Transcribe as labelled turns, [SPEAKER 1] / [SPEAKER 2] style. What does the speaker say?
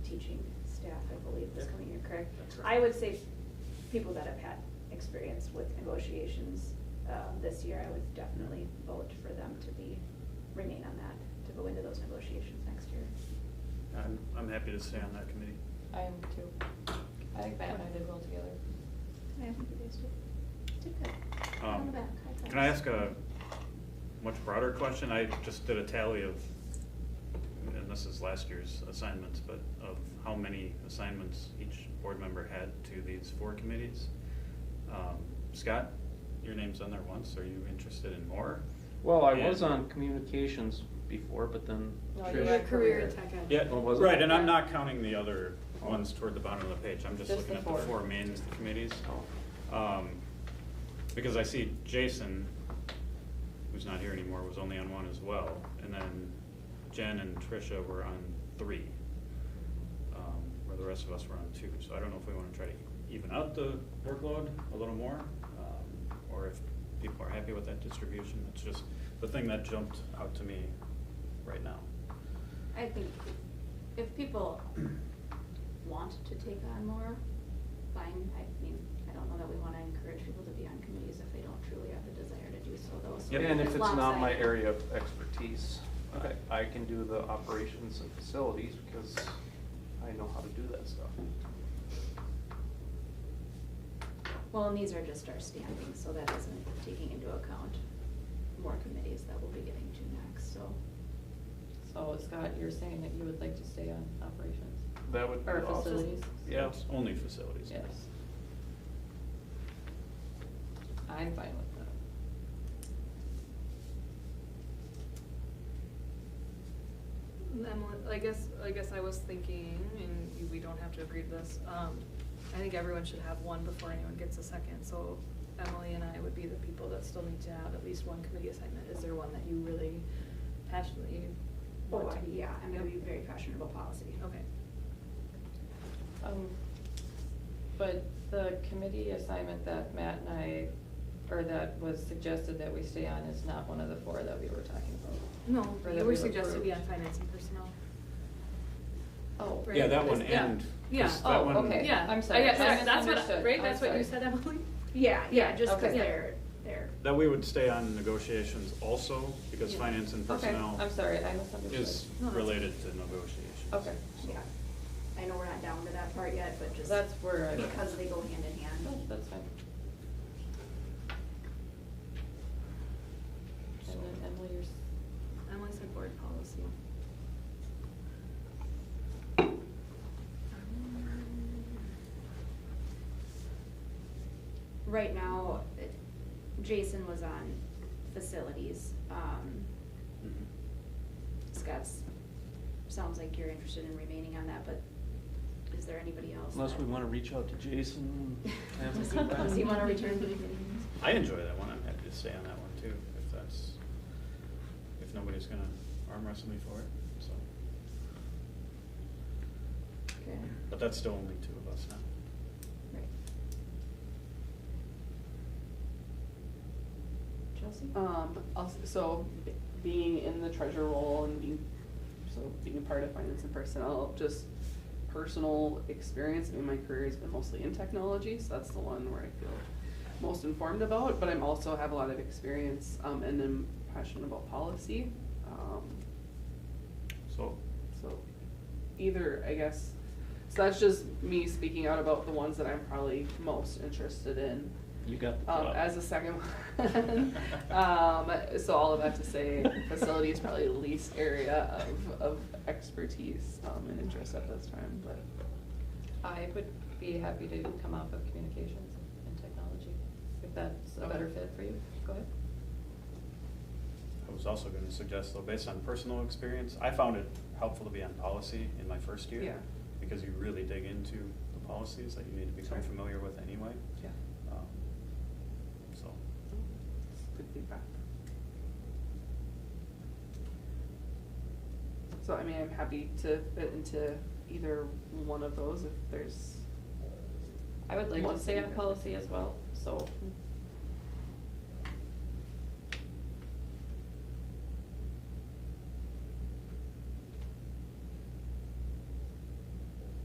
[SPEAKER 1] teaching staff, I believe, this
[SPEAKER 2] Yeah.
[SPEAKER 1] coming year, correct?
[SPEAKER 2] That's right.
[SPEAKER 1] I would say people that have had experience with negotiations um, this year, I would definitely vote for them to be, remain on that, to go into those negotiations next year.
[SPEAKER 2] I'm, I'm happy to stay on that committee.
[SPEAKER 3] I am too. I think Matt and I did well together.
[SPEAKER 1] Yeah, I think you guys did, did good. Pat on the
[SPEAKER 2] Um,
[SPEAKER 1] back, high five.
[SPEAKER 2] Can I ask a much broader question? I just did a tally of, and this is last year's assignments, but of how many assignments each board member had to these four committees. Um, Scott, your name's on there once. Are you interested in more?
[SPEAKER 4] Well, I was
[SPEAKER 2] And-
[SPEAKER 4] on communications before, but then
[SPEAKER 3] No, you
[SPEAKER 4] Trish,
[SPEAKER 3] were career
[SPEAKER 5] tech
[SPEAKER 3] tech.
[SPEAKER 5] ed.
[SPEAKER 2] Yeah,
[SPEAKER 4] Oh, was it?
[SPEAKER 2] right, and I'm
[SPEAKER 3] Yeah.
[SPEAKER 2] not counting the other ones toward the bottom of the page, I'm just
[SPEAKER 3] Just
[SPEAKER 2] looking
[SPEAKER 3] the
[SPEAKER 2] at the
[SPEAKER 3] four.
[SPEAKER 2] four main committees.
[SPEAKER 4] Oh.
[SPEAKER 2] Um, because I see Jason, who's not here anymore, was only on one as well, and then Jen and Tricia were on three. Um, where the rest of us were on two, so I don't know if we wanna try to even out the workload a little more, um, or if people are happy with that distribution, it's just the thing that jumped out to me right now.
[SPEAKER 1] I think if people want to take on more, fine. I mean, I don't know that we wanna encourage people to be on committees if they don't truly have the desire to do so though. so
[SPEAKER 2] Yep.
[SPEAKER 4] And if it's not my
[SPEAKER 1] lopsided.
[SPEAKER 4] area of expertise, I-
[SPEAKER 2] Okay.
[SPEAKER 4] I can do the operations and facilities because I know how to do that stuff.
[SPEAKER 1] Well, and these are just our standings, so that isn't taking into account more committees that we'll be getting to next, so.
[SPEAKER 3] So Scott, you're saying that you would like to stay on operations
[SPEAKER 4] That would be
[SPEAKER 3] or
[SPEAKER 4] awesome.
[SPEAKER 3] facilities?
[SPEAKER 4] Yeah.
[SPEAKER 2] It's Only facilities.
[SPEAKER 3] Yes. I'm fine with that.
[SPEAKER 5] Emily, I guess, I guess I was thinking, and you- we don't have to agree to this, um, I think everyone should have one before anyone gets a second, so Emily and I would be the people that still need to have at least one committee assignment. Is there one that you really passionately
[SPEAKER 1] Oh,
[SPEAKER 5] want to
[SPEAKER 1] I-
[SPEAKER 5] be?
[SPEAKER 1] yeah, I'm gonna be very passionate about policy.
[SPEAKER 5] Okay.
[SPEAKER 3] Um, but the committee assignment that Matt and I, or that was suggested that we stay on is not one of the four that we were talking about.
[SPEAKER 5] No,
[SPEAKER 3] Or that
[SPEAKER 5] you
[SPEAKER 3] we
[SPEAKER 5] were suggested to be on
[SPEAKER 3] approved.
[SPEAKER 5] finance and personnel.
[SPEAKER 3] Oh,
[SPEAKER 5] Right.
[SPEAKER 2] Yeah, that one
[SPEAKER 5] Yeah.
[SPEAKER 2] and.
[SPEAKER 5] Yeah.
[SPEAKER 2] 'cause that
[SPEAKER 3] Oh,
[SPEAKER 2] one-
[SPEAKER 3] okay.
[SPEAKER 5] Yeah,
[SPEAKER 3] I'm sorry.
[SPEAKER 5] I guess,
[SPEAKER 3] I
[SPEAKER 5] that's what,
[SPEAKER 3] misunderstood.
[SPEAKER 5] right,
[SPEAKER 3] I'm
[SPEAKER 5] that's what you
[SPEAKER 3] sorry.
[SPEAKER 5] said, Emily?
[SPEAKER 1] Yeah, yeah,
[SPEAKER 5] Yeah,
[SPEAKER 1] just cause
[SPEAKER 3] okay.
[SPEAKER 1] they're, they're.
[SPEAKER 2] That we would stay on negotiations also, because
[SPEAKER 5] Yeah.
[SPEAKER 2] finance and
[SPEAKER 3] Okay,
[SPEAKER 2] personnel
[SPEAKER 3] I'm sorry, I misunderstood.
[SPEAKER 2] is
[SPEAKER 5] No, that's-
[SPEAKER 2] related to negotiations.
[SPEAKER 3] Okay.
[SPEAKER 2] So-
[SPEAKER 1] Yeah, I know we're not down to that part yet, but just.
[SPEAKER 3] That's where I.
[SPEAKER 1] Because they go hand in
[SPEAKER 3] No,
[SPEAKER 1] hand.
[SPEAKER 3] That's fine.
[SPEAKER 2] So-
[SPEAKER 3] And then Emily, yours,
[SPEAKER 5] Emily said board policy.
[SPEAKER 1] Right now, it- Jason was on facilities, um,
[SPEAKER 2] Mhm.
[SPEAKER 1] Scott's, sounds like you're interested in remaining on that, but is there anybody else?
[SPEAKER 4] Unless
[SPEAKER 1] that-
[SPEAKER 4] we want to reach out to Jason. and have him come back.
[SPEAKER 1] Does he wanna return to the meetings?
[SPEAKER 2] I enjoy that one, I'm happy to stay on that one too, if that's, if nobody's gonna arm wrestle me for it, so.
[SPEAKER 1] Okay,
[SPEAKER 2] But that's still only two of us now.
[SPEAKER 1] right. Chelsea?
[SPEAKER 6] Um, also, so b- being in the treasure role and being, so being a part of finance and personnel, just personal experience, I mean, my career has been mostly in technology, so that's the one where I feel most informed about, but I'm also have a lot of experience, um, and am passionate about policy. Um,
[SPEAKER 2] So,
[SPEAKER 6] so either, I guess, so that's just me speaking out about the ones that I'm probably most interested in.
[SPEAKER 4] You got the
[SPEAKER 6] Um,
[SPEAKER 4] job.
[SPEAKER 6] as a second one, um, so all of that to say, facility is probably the least area of, of expertise, um, and interest at this time, but.
[SPEAKER 3] I would be happy to come off of communications and technology, if that's a better fit for you, go ahead.
[SPEAKER 2] I was also gonna suggest though, based on personal experience, I found it helpful to be on policy in my first year.
[SPEAKER 6] Yeah.
[SPEAKER 2] Because you really dig into the policies that you need to become
[SPEAKER 6] Sure.
[SPEAKER 2] familiar with anyway.
[SPEAKER 6] Yeah.
[SPEAKER 2] Um, So,
[SPEAKER 6] Good feedback. So, I mean, I'm happy to fit into either one of those if there's,
[SPEAKER 3] I would like to
[SPEAKER 6] Once
[SPEAKER 3] stay
[SPEAKER 6] you
[SPEAKER 3] on
[SPEAKER 6] go.
[SPEAKER 3] policy as well, so